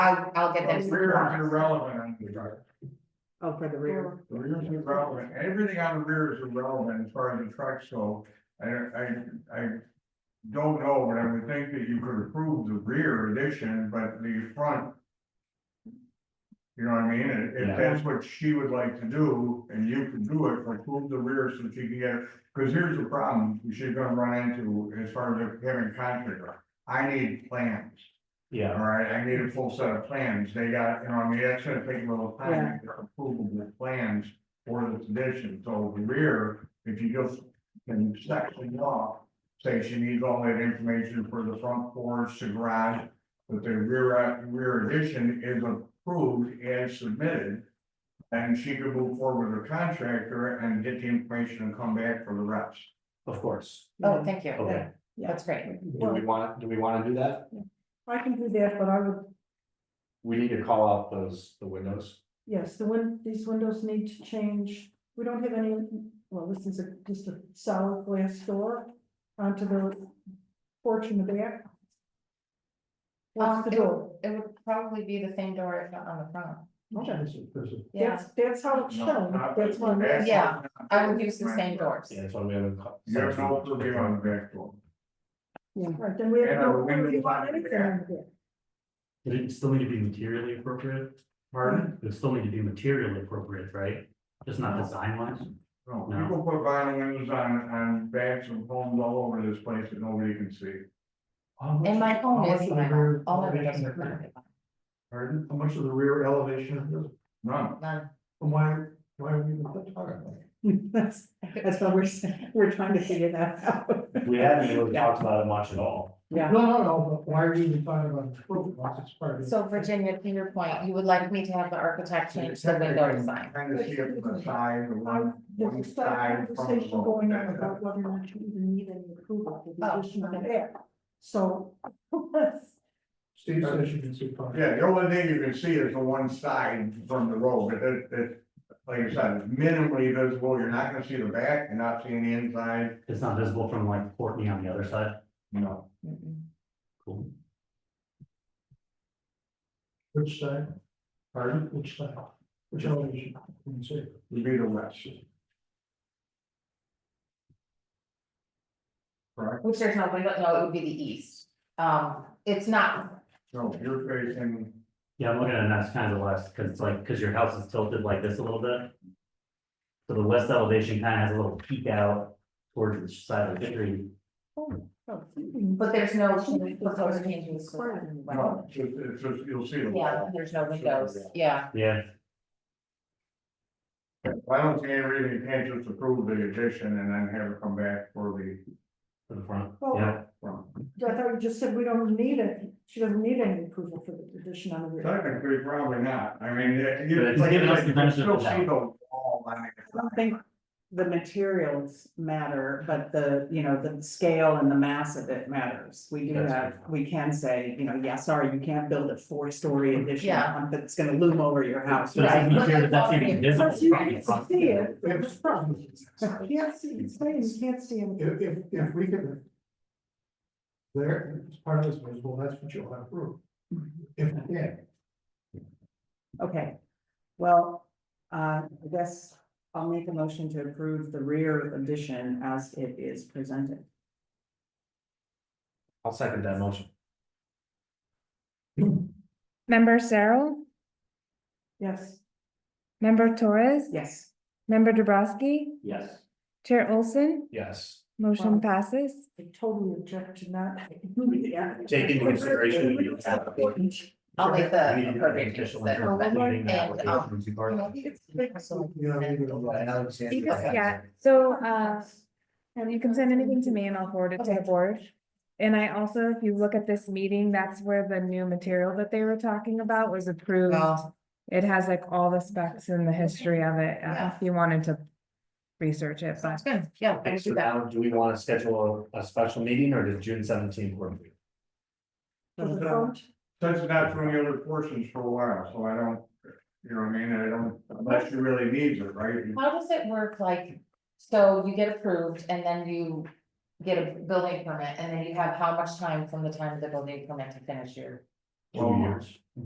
I'll, I'll get those. Rear is irrelevant on the drive. Oh, for the rear. The rear is irrelevant. Everything on the rear is irrelevant as far as the trucks go. I, I, I don't know, but I would think that you could approve the rear addition, but the front. You know what I mean? And If Yeah. that's what she would like to do, and you can do it, like move the rear so she can get, because here's the problem she's gonna run into as far as having contractor. I need plans. All yeah, right, I need a full set of plans, they got, you know, I mean, that's gonna take a little time, to get approvable plans for this addition, so the rear, if you just can section it off. Say she needs all that information for the front porch, the garage, but the rear, rear addition is approved as submitted. And she can move forward with her contractor and get the information and come back for the rest. of course, Oh, thank you. okay, That's great. do we wanna, do we wanna do that? I can do that, but I would, We need to call out those, the windows, yes, the win, these windows need to change. We don't have any, well, this is a, just a solid glass door onto the porch in the back. What's the Um, it- door? It would probably be the same door if not on the front. Okay. Yeah, That's, that's Oh, how it's shown, that's one. Back- Yeah, I would use the same doors. yeah, that's why we haven't. co- You have no purview on the back door. Right, then we have. And our no- windows we want on the anything on the back. But it still need to be materially appropriate, Pardon? it would still need to be materially appropriate, right? Just not design wise, No, No. people put vinyl windows on, on backs of homes all over this place that nobody can see. Oh, And my home is vinyl. All my windows are vinyl. Pardon? How much of the rear elevation of this, None. None. why, why are we even talking about it? That's, that's what we're, saying. we're trying to figure that out. We haven't really talked about it much at all, Yeah. No, no, no, but why are we even talking about the roof, once it's part of. So Virginia, to your point, you would like me to have the architect change the window design. Kind of see it from the side, the one, Um, one There's a side. from side the conversation going on road. about whether or not you even need any approval for the Oh, addition of the okay. back. So. Steve says you can see part of it. Yeah, the only thing you can see is the one side from the road, but it, it, like I said, minimally visible, you're not gonna see the back, you're not seeing the inside, it's not visible from like Courtney on the other side, you know. Mm-mm. cool. Which side, Pardon? which side, which elevation, you can see. Would be the west. Correct, Which there's no window, no, it would be the east. Um, it's not, so you're facing, Yeah, I'm looking at it, and that's kind of the west, because it's like, because your house is tilted like this a little bit. So the west elevation kind of has a little peek out towards the side of the tree, oh, but there's no change- proposed changes. to the no, window. it's, just- it's, just- you'll see the Yeah, wall. there's no windows. Yeah, yeah, Well, I don't see any reason you can't just approve the addition and then have it come back for the, to the front, Well, yeah. well, I thought you just said we don't need it, she doesn't need any approval for the addition on the rear. technically, probably not, I mean, it- you. But it's giving us the you benefit Still of the see the wall, I mean. I don't think the materials matter, but the, you know, the scale and the mass of it matters. We do That's have, we can say, you know, yeah, sorry, you can't build a four-story addition Yeah. on- that's gonna loom over your house. So it's Right. material that's even visible But you from the can't front. see it, If, you can't see, it's saying you can't see it. if, if- if we could. There, it's part of this visible, that's what you'll have proof. If, yeah, Okay, well, uh, I guess I'll make a motion to approve the rear addition as it is presented. I'll second that motion. Member Cyril, Yes, member Torres, Yes. member Dubrasky, Yes. Chair Olson, Yes, Wow. motion passes. I totally object to not. take into consideration. that you have a- I'll make I the mean, you're an appropriate official changes. in terms of leaving the And, um, application to part of it. Yeah, so uh, you can send anything to me and I'll forward it to the Okay. board. And I also, if you look at this meeting, that's where the new material that they were talking about was approved. Well, It has like all the specs and the history of it, uh, Yeah. if you wanted to research it, but sounds good. Yeah, I Okay, can so do that. now, do we wanna schedule a a special meeting or does June seventeenth work? for you? For the front, That's not doing the other portions for a while, so I don't, you know what I mean, I don't, unless you really needs it, right? You- How does it work, like, so you get approved and then you get a building permit, and then you have how much time from the time of the building permit to finish your Two years.